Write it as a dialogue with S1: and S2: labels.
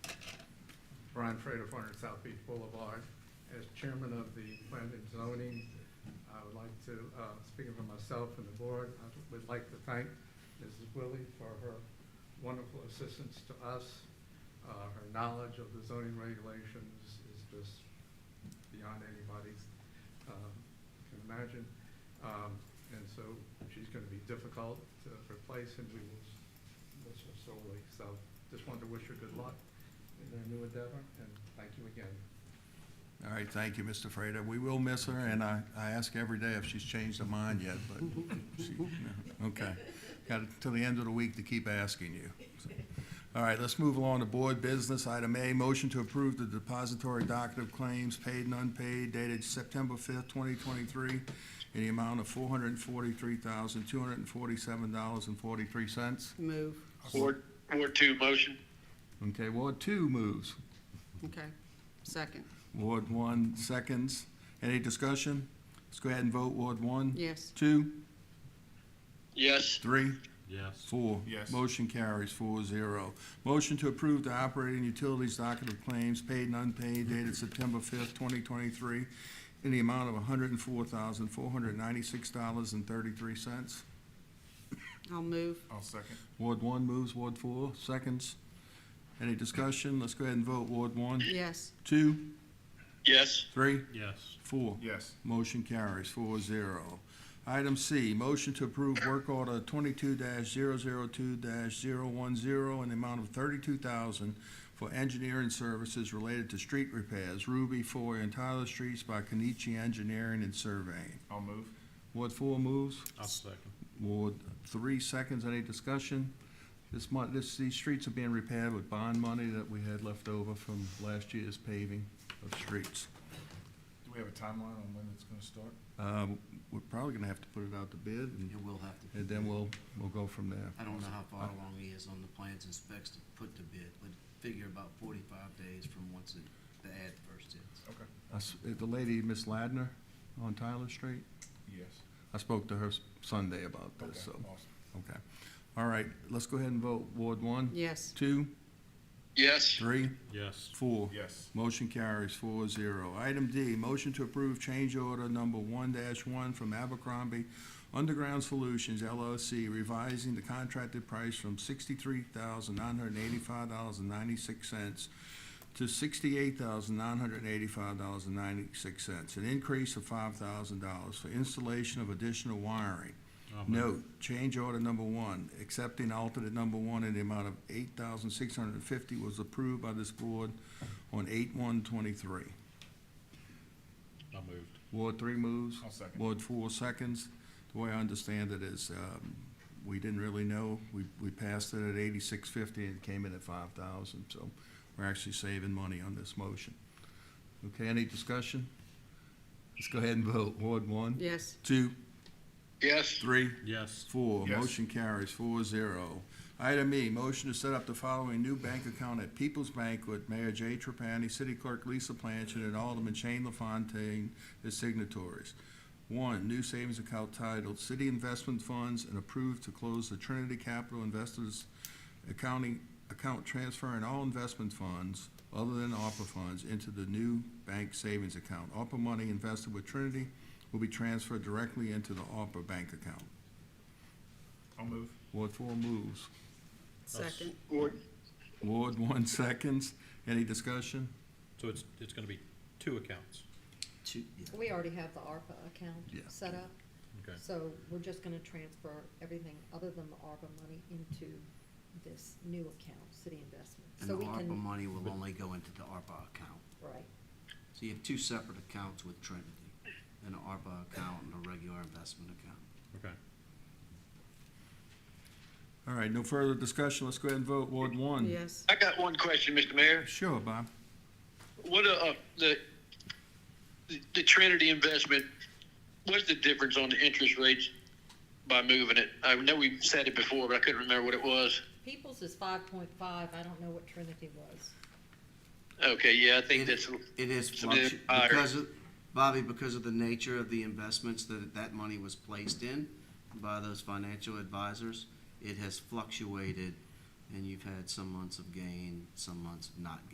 S1: Brian Frater, 400 South Beach Boulevard. As chairman of the planning and zoning, I would like to, uh, speaking for myself and the board, I would like to thank Mrs. Willie for her wonderful assistance to us. Uh, Her knowledge of the zoning regulations is just beyond anybody's, um, can imagine. Um, And so she's going to be difficult to replace, and we will miss her sorely. So just wanted to wish her good luck in their new endeavor, and thank you again.
S2: All right, thank you, Mr. Freda. We will miss her, and I, I ask every day if she's changed her mind yet, but she, no, okay. Got until the end of the week to keep asking you. so. All right, let's move along to board business. Item A, motion to approve the depository docket of claims paid and unpaid dated September fifth, twenty twenty-three in the amount of four hundred and forty-three thousand, two hundred and forty-seven dollars and forty-three cents.
S3: Move,
S4: Ward, Ward two motion.
S2: Okay, Ward two moves.
S3: okay. Second,
S2: Ward one seconds. Any discussion? Let's go ahead and vote. Ward one?
S3: yes,
S2: Two,
S4: Yes,
S2: three,
S5: Yes.
S2: four.
S5: Yes.
S2: Motion carries four zero. Motion to approve the operating utilities docket of claims paid and unpaid dated September fifth, twenty twenty-three in the amount of hundred and four thousand, four hundred and ninety-six dollars and thirty-three cents.
S3: I'll move,
S5: I'll second.
S2: Ward one moves, Ward four seconds. Any discussion? Let's go ahead and vote. Ward one,
S3: yes,
S2: two,
S4: yes,
S2: three,
S5: Yes.
S2: four.
S5: Yes.
S2: Motion carries four zero. Item C, motion to approve work order twenty-two 2 10 in the amount of thirty-two thousand for engineering services related to street repairs, Ruby Four and Tyler Streets by Kenichi Engineering and Surveying.
S5: I'll move.
S2: Ward four moves,
S5: I'll second.
S2: Ward three seconds, any discussion? This month, this, these streets are being repaired with bond money that we had left over from last year's paving of streets.
S5: Do we have a timeline on when it's gonna start?
S2: Uh, we're probably gonna have to put it out to bid and
S6: You will have to.
S2: And then we'll, we'll go from there.
S6: I don't know how far along he is on the plans and specs to put to bid, but figure about forty-five days from once it, the ad first hits.
S5: Okay.
S2: I s- uh, The lady, Miss Ladner, on Tyler Street,
S5: Yes.
S2: I spoke to her s- Sunday about
S5: Okay,
S2: this, so,
S5: awesome.
S2: okay. All right, let's go ahead and vote. Ward one,
S3: yes,
S2: two,
S4: yes,
S2: three,
S5: Yes.
S2: four.
S5: Yes.
S2: Motion carries four zero. Item D, motion to approve change order number one one from Abercrombie Underground Solutions LLC, revising the contracted price from sixty-three thousand nine hundred and eighty-five dollars and ninety-six cents to sixty-eight thousand nine hundred and eighty-five dollars and ninety-six cents, an increase of five thousand dollars for installation of additional wiring.
S5: I'll move.
S2: Note, change order number one, accepting alternate number one in the amount of eight thousand six hundred and fifty was approved by this board on eight one twenty-three.
S5: I moved.
S2: Ward three moves.
S5: I'll second.
S2: Ward four seconds. The way I understand it is, um, we didn't really know. We, we passed it at eighty-six fifty and it came in at five thousand, so we're actually saving money on this motion. Okay, any discussion? Let's go ahead and vote. Ward one,
S3: yes,
S2: two,
S4: yes,
S2: three,
S5: Yes.
S2: Four,
S5: Yes.
S2: motion carries four zero. Item E, motion to set up the following new bank account at People's Bank with Mayor Jay Trapani, City Clerk Lisa Blanchard, and Alderman Shane LaFontaine as signatories. One, new savings account titled City Investment Funds and approved to close the Trinity Capital Investors Accounting, account transferring all investment funds other than ARPA funds into the new bank savings account. ARPA money invested with Trinity will be transferred directly into the ARPA bank account.
S5: I'll move.
S2: Ward four moves.
S3: second,
S4: Ward,
S2: Ward one seconds. Any discussion?
S7: So it's, it's gonna be two accounts,
S6: Two, yeah.
S8: We already have the ARPA account
S2: Yeah.
S8: set up,
S7: okay?
S8: so we're just gonna transfer everything other than the ARPA money into this new account, city investment.
S6: And the
S8: So we
S6: ARPA
S8: can,
S6: money will only go into the ARPA account.
S8: right,
S6: So you have two separate accounts with Trinity, an ARPA account and a regular investment account.
S7: Okay.
S2: All right, no further discussion. Let's go ahead and vote. Ward one.
S3: yes,
S4: I got one question, Mr. Mayor.
S2: Sure, Bob.
S4: What, uh, uh, the, the Trinity investment, what's the difference on the interest rates by moving it? I know we said it before, but I couldn't remember what it was.
S8: People's is five point five, I don't know what Trinity was.
S4: Okay, yeah, I think
S6: It-
S4: that's,
S6: It is
S4: It's a bit
S6: fluctu-
S4: higher.
S6: because of, Bobby, because of the nature of the investments that that money was placed in by those financial advisors, it has fluctuated, and you've had some months of gain, some months of not